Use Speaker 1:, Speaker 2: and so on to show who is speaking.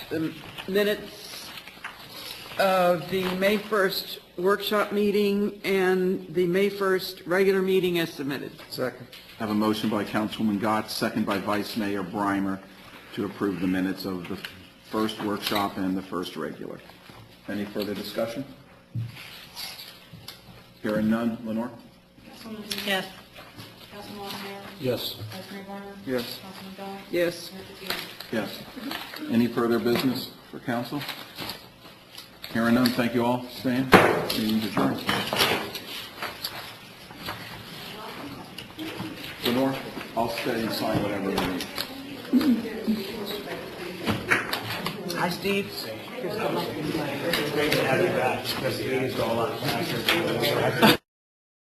Speaker 1: the minutes of the May 1st workshop meeting and the May 1st regular meeting as submitted.
Speaker 2: Second.
Speaker 3: I have a motion by Councilwoman Gotz, second by Vice Mayor Brimer, to approve the minutes of the first workshop and the first regular. Any further discussion? Hearing none, Lenore?
Speaker 4: Councilwoman Dean.
Speaker 1: Yes.
Speaker 4: Councilman Montemayor.
Speaker 2: Yes.
Speaker 4: Vice Mayor Barner.
Speaker 2: Yes.
Speaker 4: Councilman Dodd.
Speaker 1: Yes.
Speaker 4: Mayor Patino.
Speaker 3: Yes. Any further business for council? Hearing none, thank you all, Stan. Meeting adjourned. Lenore, I'll stay and sign whatever we need.
Speaker 1: Hi, Steve.